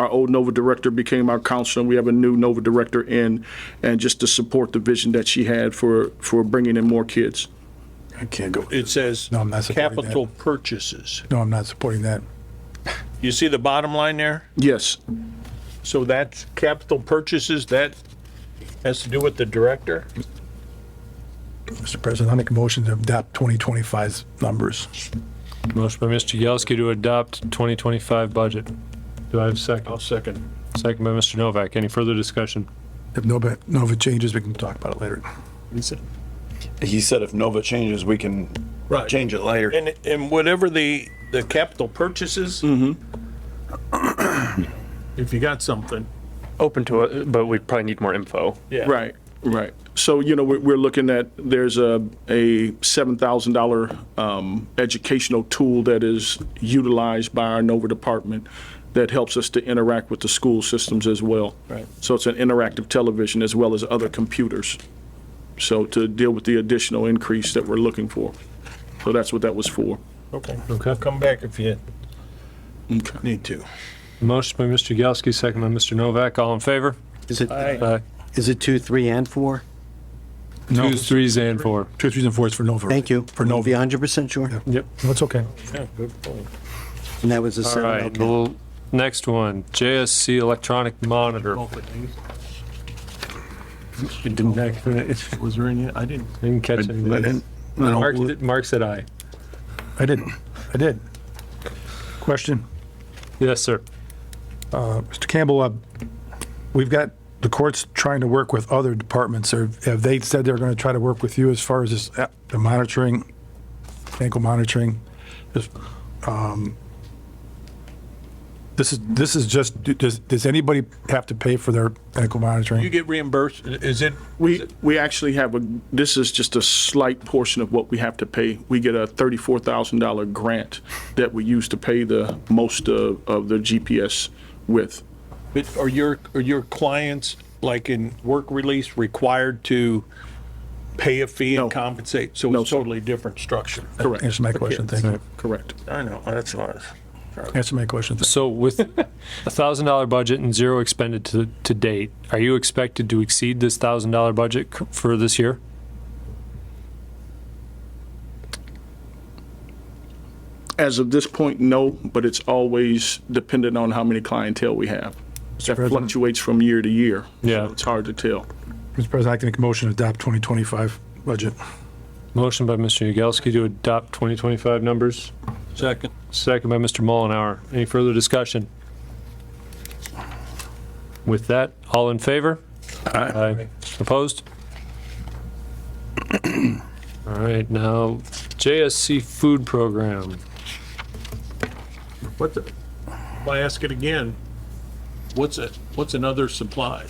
our old Nova director became our counselor, and we have a new Nova director in, and just to support the vision that she had for, for bringing in more kids. I can't go. It says No, I'm not supporting that. capital purchases. No, I'm not supporting that. You see the bottom line there? Yes, So that's capital purchases, that has to do with the director? Mr. President, I make a motion to adopt 2025's numbers. Motion by Mr. Yelsky to adopt 2025 budget. Do I have a second? second. Second by Mr. Novak. Any further discussion? If Nova, Nova changes, we can talk about it later. He said if Nova changes, we can Right. change it later. And, and whatever the, the capital purchases. If you got something. open to it, but we probably need more info. Yeah. right, right. So, you know, we're, we're looking at, there's a, a $7,000 um, educational tool that is utilized by our Nova department that helps us to interact with the school systems as well. Right. So it's an interactive television as well as other computers. So to deal with the additional increase that we're looking for. So that's what that was for. Okay. Okay. Come back if you need to. Motion by Mr. Yelsky, second by Mr. Novak. All in favor? Is it, Aye. is it two, three, and four? Two, threes, and four. Two, three, and four is for Nova. Thank you. For We'll Be Nova. hundred percent sure. Yep. No, it's okay. And that was a All right, seven, the okay. l- next one, JSC electronic monitor. Didn't catch- Was there any, I didn't. didn't catch anything. Mark, did- Mark said aye. I did. I did. Question, Yes, sir. Mr. Campbell, uh, we've got the courts trying to work with other departments. Or have they said they're going to try to work with you as far as this, uh, the monitoring, ankle monitoring? This, um, This is, this is just, does, does anybody have to pay for their ankle monitoring? You get reimbursed, is it, We, we actually have a, this is just a slight portion of what we have to pay. We get a $34,000 grant that we use to pay the most of, of the GPS with. but are your, are your clients, like in work release, required to pay a fee No. and compensate? So No, it's sir. totally different structure. Correct, Answer my question, thank you. correct. I know, that's what. Answer my question. thank So with a thousand dollar budget and zero expended to, to date, are you expected to exceed this thousand dollar budget c- for this year? As of this point, no, but it's always dependent on how many clientele we have. That President? fluctuates from year to year. so Yeah. It's hard to tell. you. Mr. President, I can make a motion to adopt 2025 budget. Motion by Mr. Yagowski to adopt 2025 numbers, Second. second by Mr. Mullenhour. Any further discussion? With that, all in favor? Aye. Opposed? All right, now JSC food program. What's it? If I ask it again, what's it, what's another supply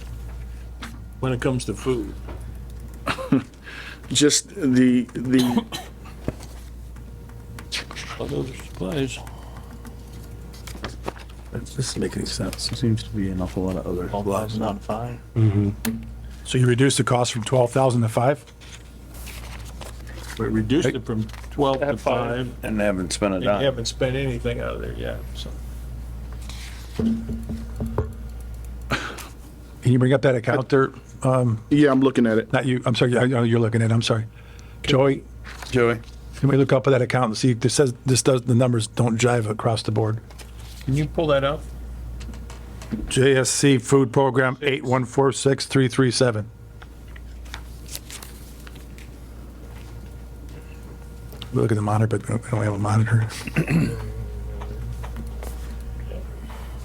when it comes to food? Just the, the Other supplies. So you reduce the cost from 12,000 to 5? We reduced it from 12 to 5, And they haven't spent a and you dime. haven't spent anything out of there yet, so. Can you bring up that account there? Yeah, I'm looking at it. Not you, I'm sorry, I know you're looking at it, I'm sorry. Joey, Joey? can we look up at that account and see, this says, this does, the numbers don't jive across the board. Can you pull that up? JSC Food Program 8146337. We Look at the monitor, but we don't we don't have a monitor.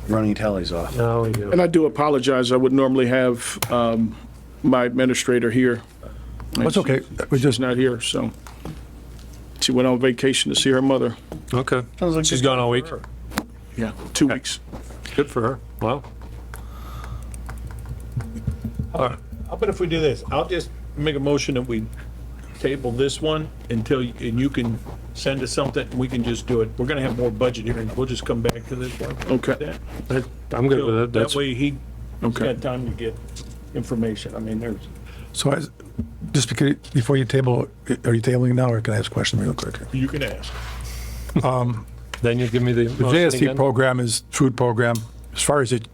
Running tallies off. Now we do. And I do apologize, I would normally have um, my administrator here. That's okay, we She's just, not here, so. She went on vacation to see her mother. Okay. She's gone all week. Yeah. Two weeks. Good for her. Wow. How about if we do this? I'll just make a motion that we table this one until, you- and you can send us something, and we can just do it. We're gonna have more budget hearings, we'll just come back to this one. Okay, That- I'm good with that. That That's, way he okay. had time to get information. I mean, there's. so I, just because, before you table, are you tabling now, or can I ask a question real quick? You can ask. then you give me the The motion JSC again. program is food program. as far as it,